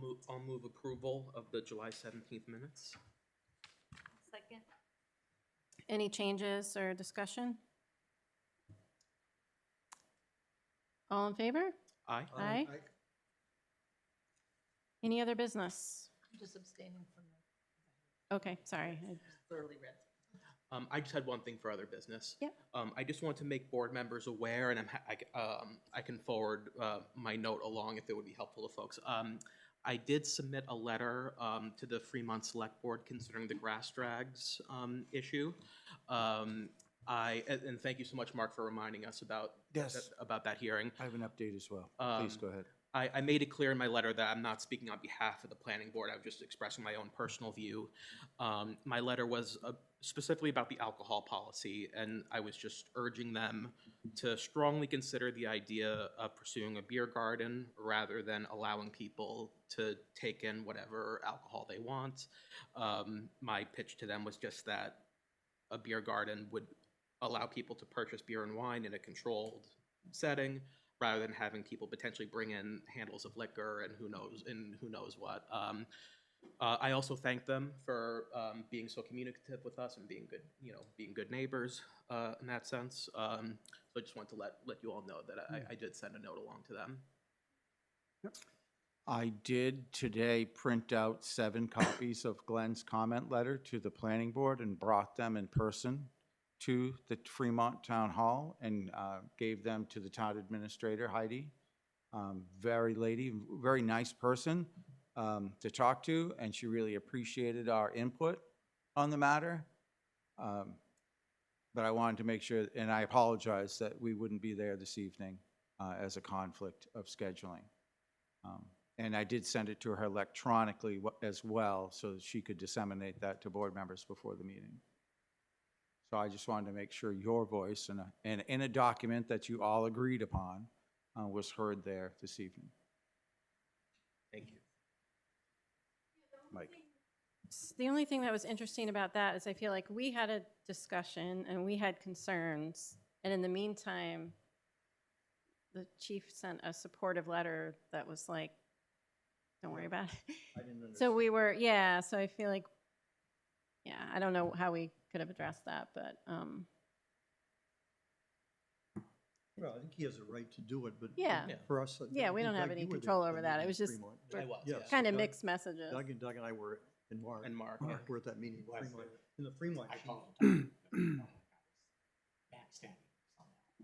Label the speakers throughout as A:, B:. A: move, I'll move approval of the July seventeenth minutes.
B: Second.
C: Any changes or discussion? All in favor?
A: Aye.
C: Aye. Any other business?
B: I'm just abstaining from the
C: Okay, sorry. I-
B: thoroughly read.
A: Um, I just had one thing for other business.
C: Yep.
A: Um, I just want to make board members aware, and I'm, ha- I, c- um, I can forward, uh, my note along if it would be helpful to folks. Um, I did submit a letter, um, to the Fremont Select Board considering the grass drags, um, issue. Um, I, and, and thank you so much, Mark, for reminding us about,
D: Yes,
A: about that hearing.
D: I have an update as well. Please
A: Um,
D: go ahead.
A: I, I made it clear in my letter that I'm not speaking on behalf of the planning board. I was just expressing my own personal view. Um, my letter was uh, specifically about the alcohol policy, and I was just urging them to strongly consider the idea of pursuing a beer garden rather than allowing people to take in whatever alcohol they want. Um, my pitch to them was just that a beer garden would allow people to purchase beer and wine in a controlled setting rather than having people potentially bring in handles of liquor and who knows and who knows what. Um, uh, I also thank them for um, being so communicative with us and being good, you know, being good neighbors uh, in that sense. Um, so I just want to let let you all know that I, I did send a note along to them.
D: I did today print out seven copies of Glenn's comment letter to the planning board and brought them in person to the Fremont Town Hall and uh, gave them to the town administrator, Heidi. Um, Very lady, very nice person um, to talk to, and she really appreciated our input on the matter. Um, But I wanted to make sure, and I apologize that we wouldn't be there this evening uh, as a conflict of scheduling. Um, And I did send it to her electronically wa- as well, so that she could disseminate that to board members before the meeting. So I just wanted to make sure your voice and, a- and in a document that you all agreed upon uh, was heard there this evening.
A: Thank you.
D: Mike?
C: s- The only thing that was interesting about that is I feel like we had a discussion and we had concerns. And in the meantime, the chief sent a supportive letter that was like, don't worry about it. So we were, yeah, so I feel like, yeah, I don't know how we could have addressed that, but, um,
E: Well, I think he has a right to do it, but.
C: Yeah.
A: Yeah.
E: For us. I
C: Yeah, we
E: think,
C: don't have
E: Doug,
C: any
E: you were there
C: control
E: for
C: over
E: the
C: that. It
E: meeting
C: was
E: in
C: just
E: Fremont.
A: I was,
E: Yes,
A: yeah.
C: kind of
E: Doug-
C: mixed messages.
E: Doug and Doug and I were, in Mark,
A: And Mark, yeah.
E: Mark were at that meeting in Fremont, in the Fremont, Chamber-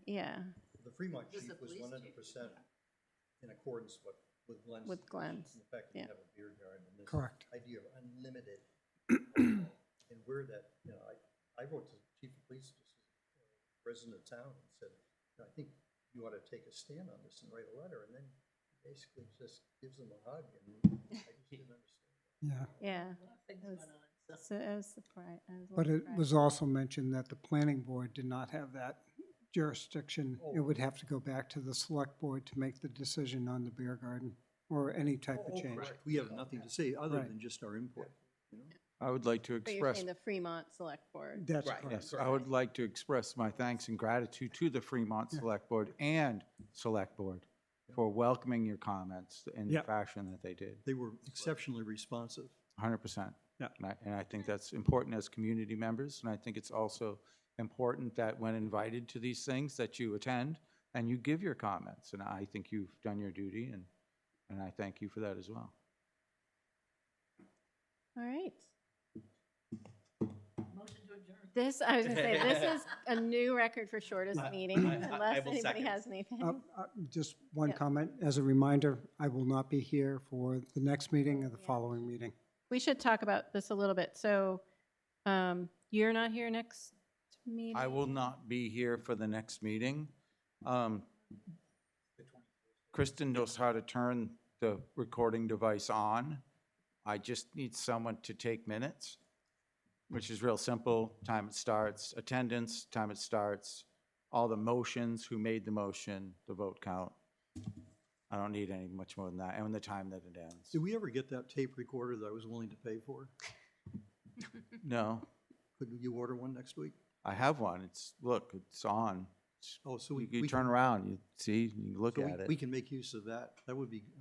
C: Yeah,
E: the Fremont
B: Was
E: chief
B: the
E: was
B: police
E: one
B: chief?
E: hundred percent in accordance with, with Glenn's.
C: With Glenn's,
E: The fact that
C: yeah.
E: you have a beer garden and this
F: Correct.
E: idea of unlimited. And where that, you know, I, I wrote to the chief of police, this is a resident of town, and said, "You know, I think you ought to take a stand on this and write a letter, and then basically just gives them a hug, and I just didn't understand.
F: Yeah,
C: yeah.
B: A lot of things
C: That
B: went
C: was-
B: on, so.
C: So I was surprised. I was a
F: but
C: little
F: it
C: surprised.
F: was also mentioned that the planning board did not have that jurisdiction. It
E: Oh.
F: would have to go back to the select board to make the decision on the beer garden or any type
B: Oh,
E: Oh,
F: of change.
A: correct.
E: We have nothing to say other
F: Right.
E: than just our input, you know?
D: I would like to
C: But you're
D: express,
C: saying the Fremont Select Board.
F: That's
A: Right.
F: correct.
D: yes, I would like to express my thanks and gratitude to the Fremont
F: Yeah.
D: Select Board and Select Board for welcoming your comments in the
F: Yeah.
D: fashion that they did.
E: They were exceptionally responsive.
D: Hundred percent.
F: Yeah.
D: And I, and I think that's important as community members, and I think it's also important that when invited to these things, that you attend and you give your comments, and I think you've done your duty, and, and I thank you for that as well.
C: All right.
B: Motion to adjourn.
C: This, I was gonna say, this is a new record for shortest
A: I-
C: meeting,
A: I- I- I
C: unless
A: will
C: anybody
A: second.
C: has anything.
F: Uh, uh, Just one
C: Yeah.
F: comment, as a reminder, I will not be here for the next meeting or the
C: Yeah.
F: following meeting.
C: We should talk about this a little bit. So, um, you're not here next meeting?
D: I will not be here for the next meeting. Um, Kristen knows how to turn the recording device on. I just need someone to take minutes, which is real simple. Time it starts, attendance, time it starts, all the motions, who made the motion, the vote count. I don't need any much more than that, and the time that it ends.
E: Did we ever get that tape recorder that I was willing to pay for?
D: No,
E: Could you order one next week?
D: I have one. It's, look, it's on.
E: Oh, so we.
D: You you
E: we
D: turn
E: can-
D: around, you see, you look
E: so we-
D: at it.
E: We can make use of that. That would be